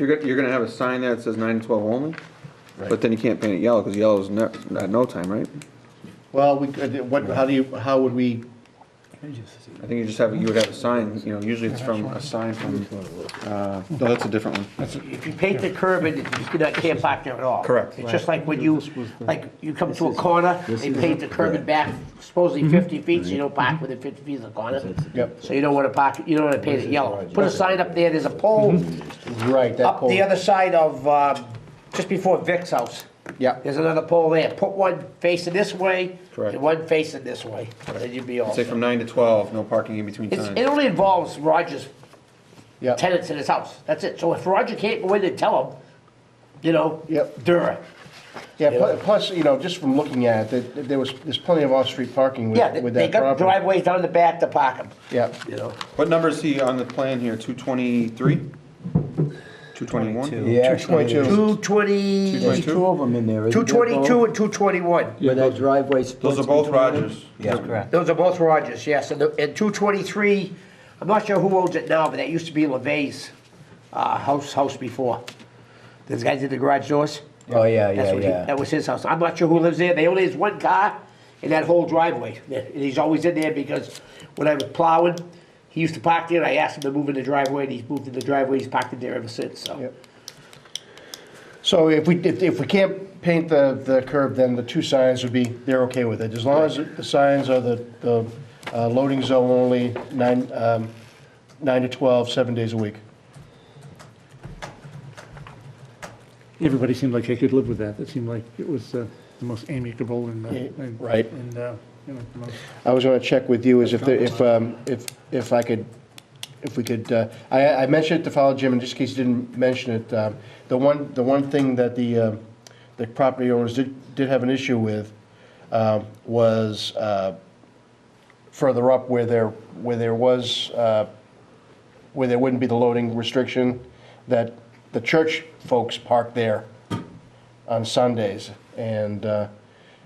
You're gonna, you're gonna have a sign there that says nine to twelve only, but then you can't paint it yellow, because yellow's ne- at no time, right? Well, we could, what, how do you, how would we, I think you just have, you would have a sign, you know, usually it's from, a sign from, uh, no, that's a different one. If you paint the curb, it, you cannot- can't park there at all. Correct. It's just like when you, like, you come to a corner, they paint the curb and back supposedly 50 feet, so you don't park within 50 feet of the corner. Yep. So you don't want to park, you don't want to paint it yellow. Put a sign up there, there's a pole right, that up pole? Uh, the other side of, um, just before Vic's house. Yep. There's another pole there. Put one facing this way Correct. and one facing this way, then you'd be all Say set. from nine to twelve, no parking in between It's- It times. only involves Roger's Yep. tenants in his house. That's it. So if Roger can't go in and tell him, you know, Yep. Dura. Yeah, pl- plus, you know, just from looking at it, that there was, there's plenty of off-street parking Yeah, with, they- with they that got property. driveways down the back to park them, Yeah, you know. What number is he on the plan here, two twenty-three? Two twenty-one? Yeah, two twenty-two, Two twenty, There's two of them in two there. isn't there, Bo? twenty-two and two twenty-one. Where that driveway splits. Those are both between them? Rogers. Yeah, correct. Those are both Rogers, yes, and, the- and two twenty-three, I'm not sure who owns it now, but that used to be LeVay's, uh, house, house before. Those guys did the garage doors? Oh, yeah, That's yeah, what he, yeah. that was his house. I'm not sure who lives there. They only has one car in that whole driveway. And he's always in there because when I was plowing, he used to park there. I asked him to move in the driveway and he's moved in the driveway. He's parked in there ever since, so. Yep. So if we, if, if we can't paint the, the curb, then the two signs would be, they're okay with it. As long as the signs are the, the uh, loading zone only, nine, um, nine to 12, seven days a week. Everybody seemed like they could live with that. It seemed like it was uh, the most amicable and, uh, Yeah, and- right. And, uh, you know, the most- I was gonna check with you is if, there- if, um, if, if I could, if we could, uh, I, I mentioned it to follow Jim, in just in case you didn't mention it, um, the one, the one thing that the, um, the property owners did, did have an issue with, um, was, uh, further up where there, where there was, uh, where there wouldn't be the loading restriction, that the church folks park there on Sundays, and, uh,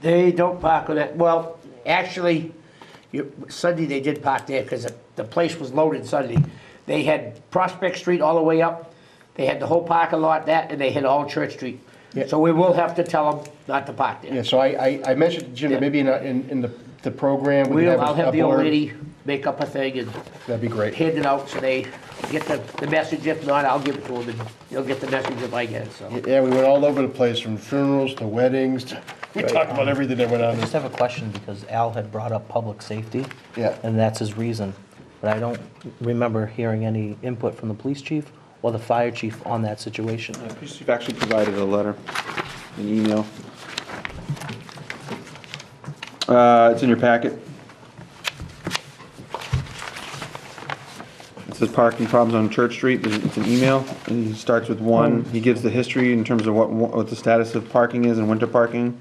They don't park on that. Well, actually, you- Sunday they did park there because the place was loaded Sunday. They had Prospect Street all the way up. They had the whole parking lot, that, and they had all Church Street. Yeah. So we will have to tell them not to park there. Yeah, so I, I, I mentioned to Jim that maybe in, a- in, in the, the program. we could We'll, a- I'll a have the old board. lady make up a thing and That'd be great. hand it out so they get the, the message. If not, I'll give it to them and they'll get the message if I get it, so. Yeah, we went all over the place, from funerals to weddings, to, um, we talked about everything that went I on. just have a question because Al had brought up public safety. Yeah. And that's his reason. But I don't remember hearing any input from the police chief or the fire chief on that situation. You've actually provided a letter, an email. Uh, it's in your packet. It says parking problems on Church Street, There's- it's an email, and he starts with one, he gives the history in terms of what, what the status of parking is and winter parking.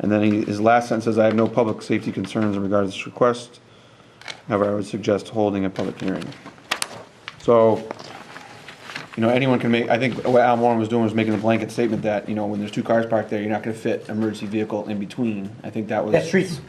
And then he, his last sentence says, I have no public safety concerns in regards to this request. However, I would suggest holding a public hearing. So, you know, anyone can make, I think what Al Warren was doing was making the blanket statement that, you know, when there's two cars parked there, you're not gonna fit emergency vehicle in between. I think that was. That street's,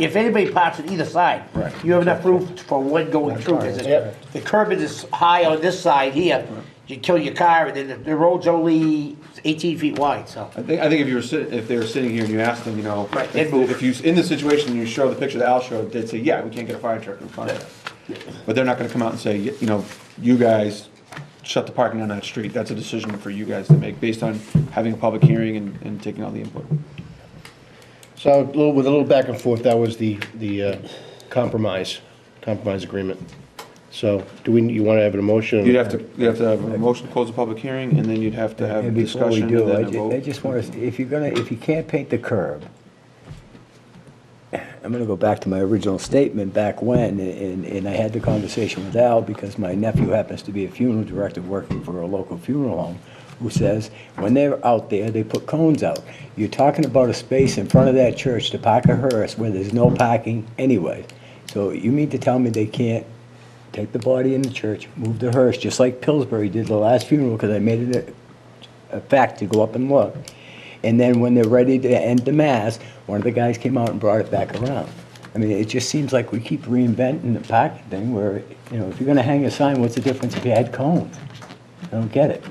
if anybody parks on either side, Right. you have enough room for one going through. 'cause it's- Yep. The curb is high on this side here. You kill your car and then the- the road's only eighteen feet wide, so. I think, I think if you were sitting, if they were sitting here and you asked them, you know, Right, if they'd move. if you, in the situation, you show the picture that Al showed, they'd say, yeah, we can't get a fire truck in front of us. But they're not gonna come out and say, y- you know, you guys shut the parking on that street. That's a decision for you guys to make based on having a public hearing and, and taking all the input. So a little, with a little back and forth, that was the, the uh, compromise, compromise agreement. So do we, you want to have an motion? You'd have to, you'd have to have a motion to close the public hearing and then you'd have to have a And before we discussion and do, then I a ju- vote. I just want to, if you're gonna, if you can't paint the curb, I'm gonna go back to my original statement back when, and, and I had the conversation with Al because my nephew happens to be a funeral director working for a local funeral home who says, when they're out there, they put cones out. You're talking about a space in front of that church to park a hearse where there's no parking anyway. So you mean to tell me they can't take the body in the church, move the hearse, just like Pillsbury did the last funeral, because I made it a, a fact to go up and look. And then when they're ready to end the mass, one of the guys came out and brought it back around. I mean, it just seems like we keep reinventing the parking thing where, you know, if you're gonna hang a sign, what's the difference if you had cones? I don't get it.